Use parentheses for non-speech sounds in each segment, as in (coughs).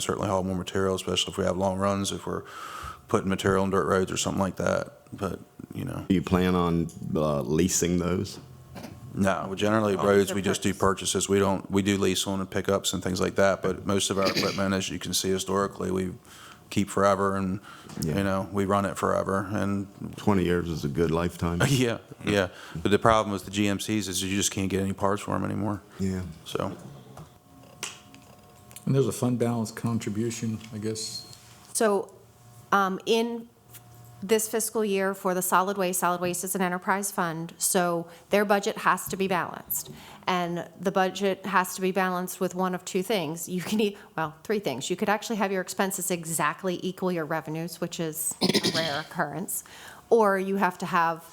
certainly haul more material, especially if we have long runs, if we're putting material on dirt roads or something like that. But, you know, Do you plan on uh, leasing those? no, we generally roads, we just do purchases. We don't, we do lease on and pickups and things like that. But most of our equipment, as you can see historically, we keep forever and, Yeah. you know, we run it forever. And (laughs) 20 years is a good lifetime. Uh, yeah, yeah. But the problem with the GMCs is you just can't get any parts for them anymore. Yeah. So, And there's a fund balance contribution, I guess. So um, in this fiscal year for the solid waste, solid waste is an enterprise fund, so their budget has to be balanced. And the budget has to be balanced with one of two things. You can, e- well, three things. You could actually have your expenses exactly equal your revenues, which is a rare occurrence, or you have to have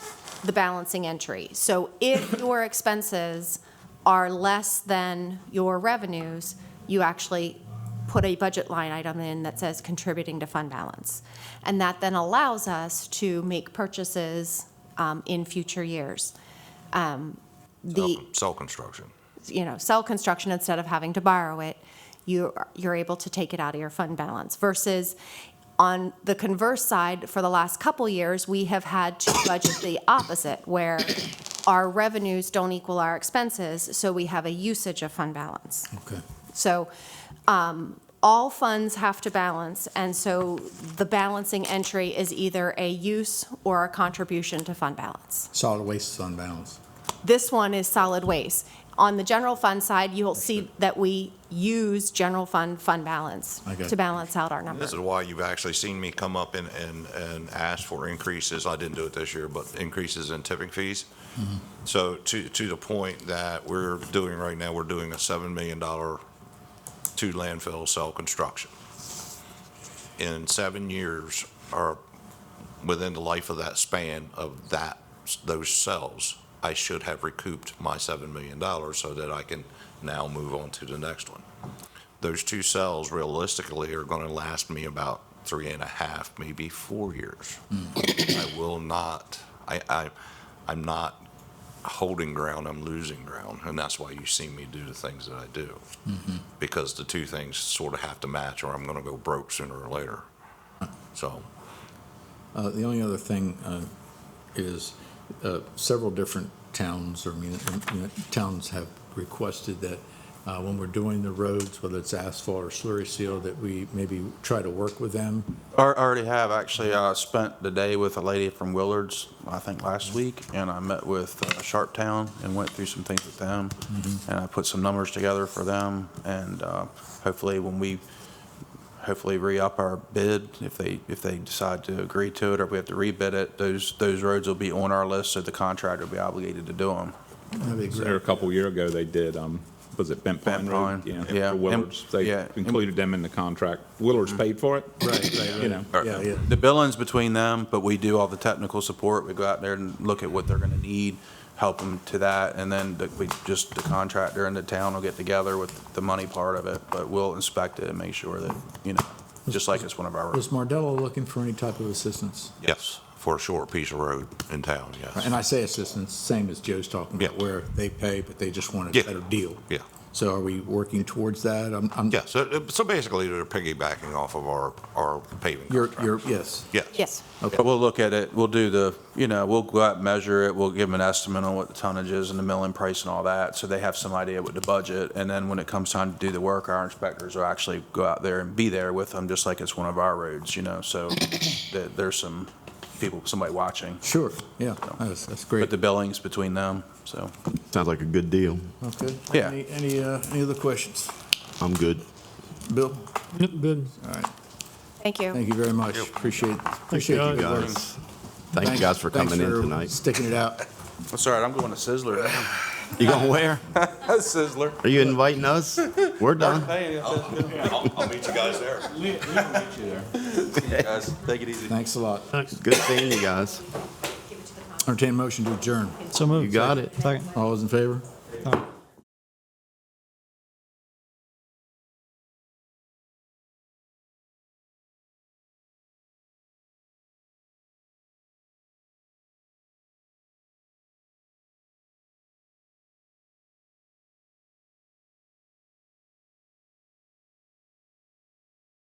the balancing entry. So if your expenses are less than your revenues, you actually put a budget line item in that says contributing to fund balance. And that then allows us to make purchases um, in future years. Um, The, Cell construction. you know, sell construction instead of having to borrow it, you're, you're able to take it out of your fund balance versus on the converse side, for the last couple years, we have had to budget the opposite where our revenues don't equal our expenses, so we have a usage of fund balance. Okay. So um, all funds have to balance, and so the balancing entry is either a use or a contribution to fund balance. Solid waste is on balance. This one is solid waste. On the general fund side, you'll see that we use general fund fund balance Okay. to balance out our numbers. This is why you've actually seen me come up and, and, and ask for increases. I didn't do it this year, but increases in tipping fees. So to, to the point that we're doing right now, we're doing a seven million dollar to landfill cell construction. In seven years, or within the life of that span of that, those cells, I should have recouped my seven million dollars so that I can now move on to the next one. those two cells realistically are going to last me about three and a half, maybe four years. Hmm. I will not, I, I, I'm not holding ground, I'm losing ground. And that's why you see me do the things that I do. Mm-hmm. Because the two things sort of have to match or I'm going to go broke sooner or later. So, Uh, The only other thing uh, is uh, several different towns or muni- uh, muni- towns have requested that uh, when we're doing the roads, whether it's asphalt or slurry seal, that we maybe try to work with them. I already have, actually, I spent the day with a lady from Willards, I think last week, and I met with uh, Sharptown and went through some things with them. And I put some numbers together for them, and uh, hopefully when we, hopefully re-up our bid, if they, if they decide to agree to it, or if we have to rebid it, those, those roads will be on our list, so the contractor will be obligated to do them. That'd be There a great. couple year ago, they did, um, was it Bent Pine Bent Road? Pine, yeah. For Willards, And- they yeah, and- included them in the contract. Willards paid for it. Right, right. You know, Yeah, yeah. The billing's between them, but we do all the technical support. We go out there and look at what they're gonna need, help them to that, and then the- we, just the contractor and the town will get together with the money part of it, but we'll inspect it and make sure that, you know, just like it's one of our. Was Mardello looking for any type of assistance? yes, for a short piece of road in town, yes. And I say assistance, same as Joe's talking about, Yeah. where they pay, but they just want a Yeah. better deal. Yeah. So are we working towards that? I'm- I'm- Yeah, so, so basically they're piggybacking off of our, our paving You're, contract. you're, yes. Yes. Yes. But we'll look at it, we'll do the, you know, we'll go out and measure it, we'll give them an estimate on what the tonnage is and the milling price and all that, so they have some idea what the budget, and then when it comes time to do the work, our inspectors will actually go out there and be there with them, just like it's one of our roads, you know, so (coughs) there, there's some people, somebody watching, Sure, yeah, that's, that's great. but the billing's between them, so. Sounds like a good deal. Okay. Yeah. Any, any, uh, any other questions? I'm good. Bill? Good. All right, Thank you. thank you very much. Appreciate, appreciate you guys. guys. Thank you guys for Thanks coming in for (laughs) tonight. Sticking it out. That's all right, I'm going to Sizzler. You going where? (laughs) Sizzler. Are you inviting us? We're done. I'll, I'll meet you guys there. Guys, take it easy. Thanks a lot. Good seeing you guys. Entertained motion to adjourn. So moved. You got it. Second. All those in favor?